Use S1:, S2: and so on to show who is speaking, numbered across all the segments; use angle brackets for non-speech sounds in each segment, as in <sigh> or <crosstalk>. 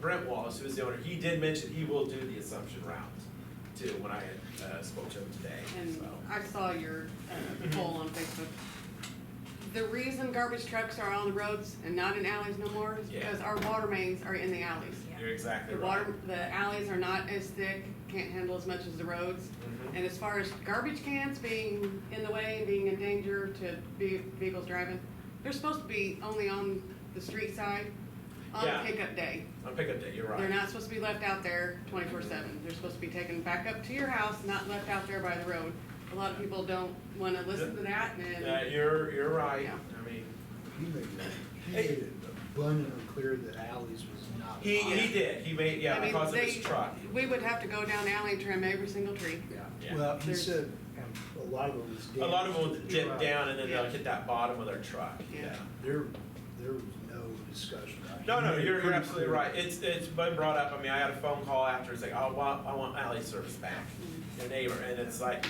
S1: Brent Wallace, who is the owner, he did mention he will do the assumption route too, when I had, uh, spoke to him today,
S2: And
S1: so.
S2: I saw your uh, poll on Facebook. The reason garbage trucks are on the roads and not in alleys no more is
S1: Yeah.
S2: because our water mains are in the alleys.
S1: You're exactly
S2: The
S1: right.
S2: water, the alleys are not as thick, can't handle as much as the roads.
S1: Mhm.
S2: And as far as garbage cans being in the way, being a danger to ve- vehicles driving, they're supposed to be only on the street side
S1: Yeah.
S2: on pickup day.
S1: On pickup day, you're
S2: They're
S1: right.
S2: not supposed to be left out there twenty-four seven. They're supposed to be taken back up to your house, not left out there by the road. A lot of people don't wanna listen to that
S1: Uh,
S2: and,
S1: you're, you're right,
S2: Yeah.
S1: I mean,
S3: He made it, he made it abundantly clear that alleys was not.
S1: he,
S3: an
S1: he
S3: option.
S1: did, he made, yeah,
S2: I mean,
S1: because of
S2: they-
S1: his truck.
S2: we would have to go down alley and trim every single tree.
S1: Yeah.
S3: Yeah, well, he
S2: There's-
S3: said, um, a lot of it was.
S1: A lot of them will
S3: damaged.
S1: dip
S3: Right.
S1: down and then they'll
S2: Yeah.
S1: hit that bottom of their truck,
S2: Yeah.
S1: yeah.
S3: There, there was no discussion. about it.
S1: No,
S3: He
S1: no,
S3: made it
S1: you're, you're
S3: pretty
S1: absolutely
S3: clear.
S1: right. It's, it's been brought up. I mean, I had a phone call after, it's like, oh, well, I want alley service back,
S2: Mm-hmm.
S1: the neighbor, and it's like,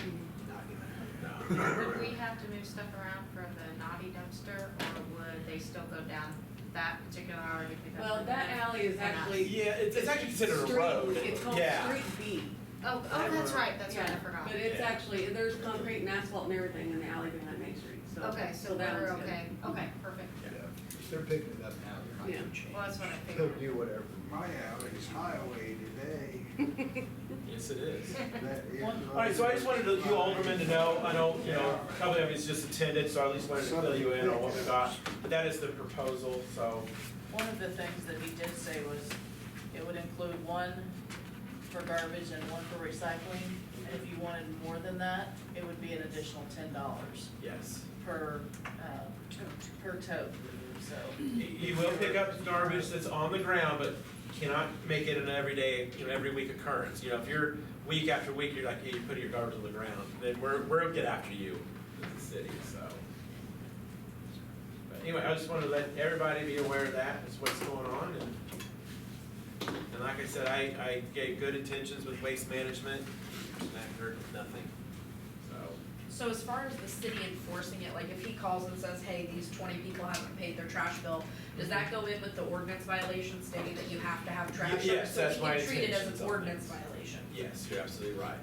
S3: Not gonna happen.
S1: no.
S4: Would we have to move stuff around from the naughty dumpster, or would they still go down that particular hour to pick up?
S2: Well,
S4: the
S2: that
S4: litter?
S2: alley is
S4: Or not?
S2: actually.
S1: Yeah, it's, it's actually considered a
S2: street-
S1: road.
S2: It's called
S1: Yeah.
S2: Street B.
S4: Oh, oh, that's right, that's right, I forgot.
S2: But it's
S1: Yeah.
S2: actually, there's concrete and asphalt and everything in the alley behind Main Street, so.
S4: Okay, so
S2: that
S4: we're
S2: one's good.
S4: okay, okay, perfect,
S3: Yeah, if they're picking it up now, they're not
S2: Yeah.
S3: gonna change.
S4: well, that's what I
S3: They'll
S4: figured.
S3: do whatever.
S5: My alley's highway
S3: <laughs>
S5: today.
S1: Yes, it is.
S5: That is-
S1: All right, so I just wanted to- you aldermen to know, I know, you know, a couple of you just attended, so I at least wanted to fill you in on what we got. But that is the proposal, so,
S6: One of the things that he did say was it would include one for garbage and one for recycling. And if you wanted more than that, it would be an additional ten dollars
S1: yes.
S6: per, uh, per tote, so.
S1: You- You will pick up garbage that's on the ground, but cannot make it an everyday, you know, every week occurrence. You know, if you're week after week, you're like, hey, you're putting your garbage on the ground, then we're, we'll get after you as a city, so. But anyway, I just wanted to let everybody be aware of that, is what's going on, and, and like I said, I, I gave good intentions with waste management, and I heard nothing, so.
S7: So as far as the city enforcing it, like if he calls and says, hey, these twenty people haven't paid their trash bill, does that go in with the ordinance violation stating that you have to have trash?
S1: Yes, that's my
S7: So he can treat it as
S1: intentions
S7: an
S1: on
S7: ordinance
S1: this.
S7: violation?
S1: Yes, you're absolutely right.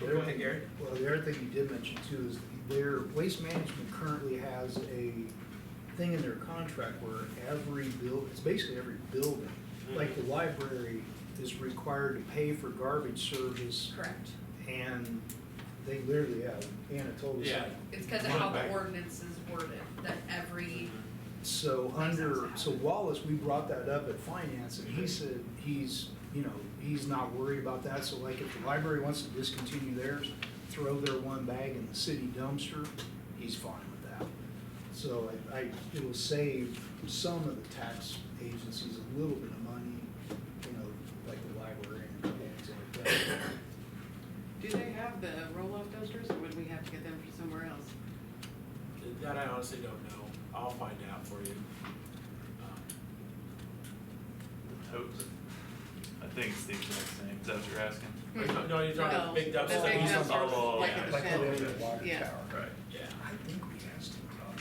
S3: Go ahead, Gary. Well, the other thing you did mention too is their waste management currently has a thing in their contract where every buil, it's basically every building. Like the library is required to pay for garbage service
S7: Correct.
S3: and they literally have, Anna told us.
S1: Yeah.
S7: It's because of how
S1: Right.
S7: the ordinance is worded, that every,
S3: So under, so Wallace, we brought that up at finance and he said he's, you know, he's not worried about that. So like if the library wants to discontinue theirs, throw their one bag in the city dumpster, he's fine with that. So I, I, it'll save some of the tax agencies a little bit of money, you know, like the library and things like that.
S2: Do they have the roll-off dumpsters, or would we have to get them from somewhere else?
S1: That I honestly don't know. I'll find out for you. Um,
S8: Totes. I think it's the exact same, is that what you're asking?
S1: No, no, you're talking about big
S2: No,
S1: dumpster.
S2: the big
S8: Oh,
S2: dumpsters,
S8: oh,
S2: like
S8: yeah.
S2: at the
S3: Like
S2: shed.
S3: the one in the water
S2: Yeah.
S3: tower.
S8: Right.
S1: Yeah.
S3: I think we asked him about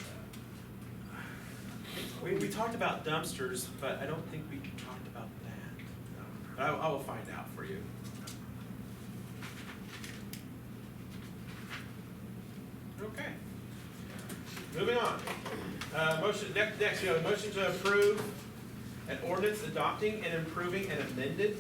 S3: that.
S1: We, we talked about dumpsters, but I don't think we talked about that. But I, I will find out for you. Okay. Moving on. Uh, motion, next, next, we have a motion to approve an ordinance adopting and improving an amended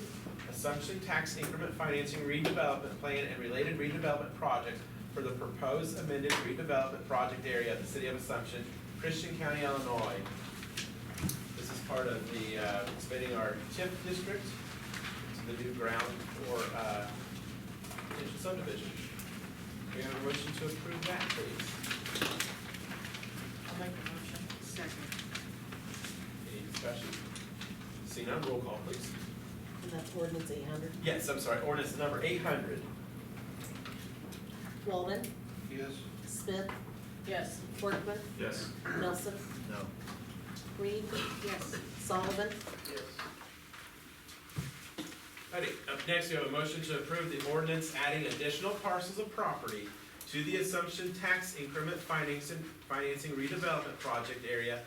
S1: assumption tax increment financing redevelopment plan and related redevelopment projects for the proposed amended redevelopment project area of the city of Assumption, Christian County, Illinois. This is part of the, uh, expanding our TIF district to the new ground for, uh, potential subdivision. We have a motion to approve that, please.
S6: I'll make a motion.
S2: Second.
S1: Any discussion? Seeing none, roll call, please.
S9: And that's ordinance eight hundred.
S1: Yes, I'm sorry, ordinance number eight hundred.
S9: Walden,
S5: Yes.
S9: Smith,
S6: Yes,
S9: Workman,
S8: Yes.
S9: Nelson,
S3: No.
S9: Reed,
S2: Yes.
S9: Sullivan,
S1: Alrighty, up next, we have a motion to approve the ordinance adding additional parcels of property to the assumption tax increment financing, financing redevelopment project area